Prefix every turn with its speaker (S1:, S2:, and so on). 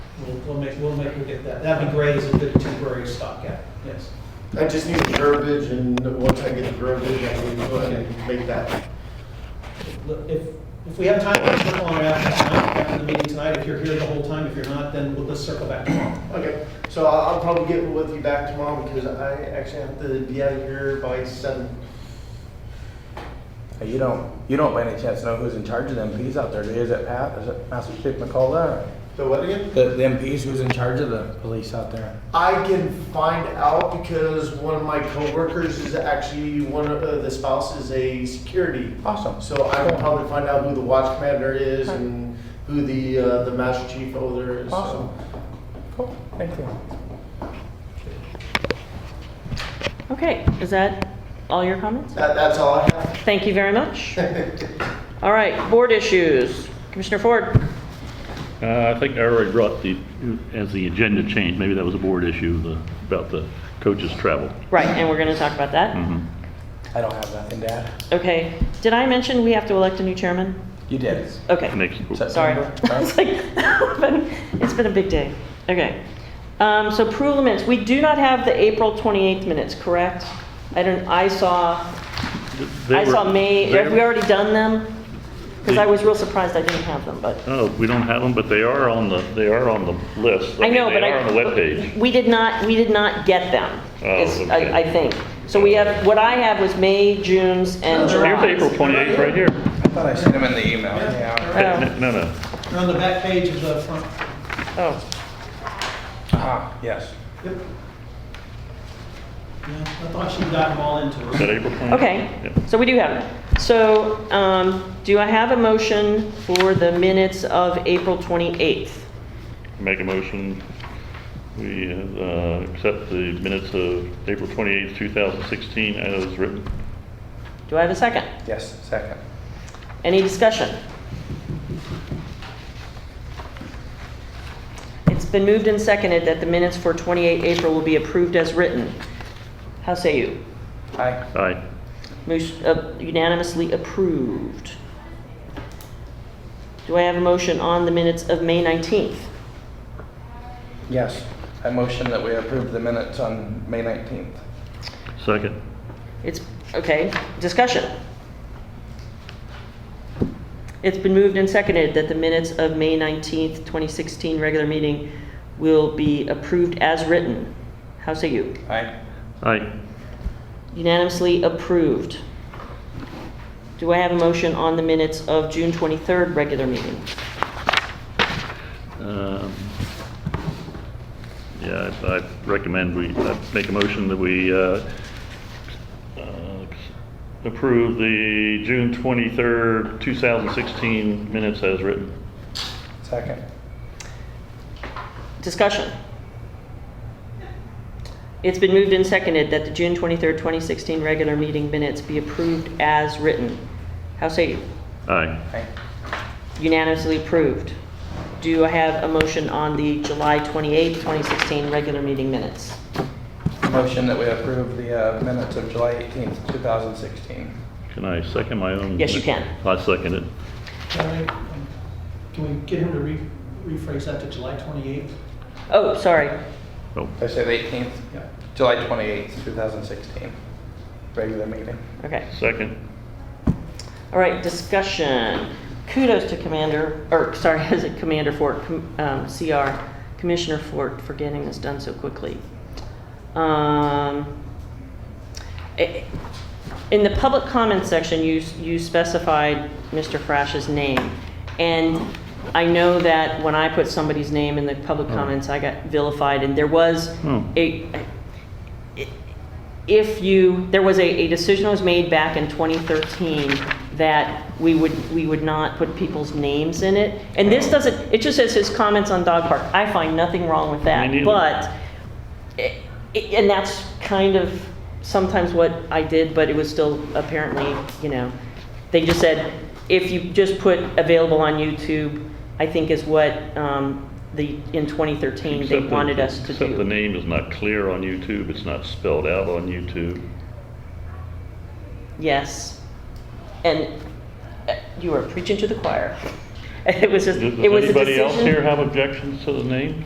S1: We'll make, we'll make her get that. That'd be great as a good temporary stopgap, yes.
S2: I just need the verbiage, and once I get the verbiage, I can go ahead and make that.
S1: Look, If, if we have time, let's circle on it after tonight, after the meeting tonight. If you're here the whole time, if you're not, then we'll just circle back tomorrow.
S2: Okay, so I'll, I'll probably get with you back tomorrow, because I actually have to be out of here by seven.
S3: Hey, You don't, you don't by any chance know who's in charge of the MPs out there, do you? Is it Pat, is it Master Chief McCullough?
S2: So what again?
S3: The, the MPs, who's in charge of the police out there?
S2: I can find out because one of my coworkers is actually, one of uh, the spouse is a security.
S3: Awesome.
S2: So I can probably find out who the watch commander is and who the, uh, the master chief over there is. so.
S3: Awesome. Cool, thank you.
S4: Okay, is that all your comments?
S2: That, that's all I have.
S4: Thank you very much. All right, board issues. Commissioner Ford?
S5: Uh, I think I already brought the, as the agenda changed, maybe that was a board issue, the, about the coaches' travel.
S4: Right, and we're going to talk about that.
S5: Mhm.
S3: I don't have nothing to add.
S4: Okay, did I mention we have to elect a new chairman?
S3: You did.
S4: Okay,
S5: Next,
S4: sorry.
S3: September,
S4: It's
S3: right?
S4: like, it's been a big day. Okay. Um, So approval of minutes, we do not have the April 28th minutes, correct? I don't, I saw,
S5: They
S4: I saw
S5: were-
S4: May,
S5: they
S4: have we
S5: were-
S4: already done them? Because I
S5: They-
S4: was real surprised I didn't have them, but.
S5: Oh, we don't have them, but they are on the, they are on the list.
S4: I know,
S5: mean,
S4: but I.
S5: They are on the webpage.
S4: We did not, we did not get them,
S5: Oh,
S4: is,
S5: okay.
S4: I, I think. So we have, what I have was May, June's, and
S5: Here's April
S4: July's.
S5: 28th, right here.
S3: I thought I sent him in the email,
S1: Yeah.
S3: yeah.
S5: Hey,
S4: Oh.
S5: n- No, no,
S1: They're on the back page of the front.
S4: Oh,
S3: Ah, yes.
S1: Yep. Yeah, I thought she'd gotten them all into
S5: is
S1: her.
S5: that April 28th?
S4: okay,
S5: Yeah.
S4: so we do have them. So, um, do I have a motion for the minutes of April 28th?
S5: Make a motion, we uh, accept the minutes of April 28th, 2016, as written.
S4: Do I have a second?
S3: Yes, second.
S4: Any discussion? It's been moved and seconded that the minutes for 28 April will be approved as written. How say you?
S3: Aye.
S5: Aye.
S4: Motion uh, unanimously approved. Do I have a motion on the minutes of May 19th?
S3: Yes. I motion that we approve the minutes on May 19th.
S5: Second.
S4: It's, okay, discussion. It's been moved and seconded that the minutes of May 19th, 2016 regular meeting will be approved as written. How say you?
S3: Aye.
S5: Aye.
S4: Unanimously approved. Do I have a motion on the minutes of June 23rd regular meeting?
S5: Um, Yeah, I I recommend we, I make a motion that we uh, uh, approve the June 23rd, 2016 minutes as written.
S3: Second.
S4: Discussion. It's been moved and seconded that the June 23rd, 2016 regular meeting minutes be approved as written. How say you?
S5: Aye.
S3: Aye.
S4: Unanimously approved. Do I have a motion on the July 28th, 2016 regular meeting minutes?
S3: Motion that we approve the uh, minutes of July 18th, 2016.
S5: Can I second my own?
S4: Yes, you can.
S5: I second it.
S1: Can I- Can we get him to re- rephrase that to July 28th?
S4: Oh, sorry.
S5: Oh,
S3: Did I say the 18th?
S1: Yeah.
S3: July 28th, 2016. Regular meeting.
S4: Okay.
S5: second.
S4: All right, discussion. Kudos to Commander, or sorry, is it Commander Fort, Com- um, CR, Commissioner Fort for getting this done so quickly. Um, i- In the public comment section, you, you specified Mr. Frash's name. And I know that when I put somebody's name in the public comments, I got vilified and there was
S5: Hmm.
S4: a, if you, there was a, a decision was made back in 2013 that we would, we would not put people's names in it. And this doesn't, it just says his comments on dog park. I find nothing wrong with that.
S5: Me neither.
S4: But, i- i- and that's kind of sometimes what I did, but it was still apparently, you know, they just said, if you just put available on YouTube, I think is what um, the, in 2013, they
S5: Except the-
S4: wanted us to
S5: Except the
S4: do.
S5: name is not clear on YouTube, it's not spelled out on YouTube.
S4: Yes. And uh, you were preaching to the choir. It was just,
S5: Does
S4: it was a
S5: anybody else here
S4: decision.
S5: have objections to the name?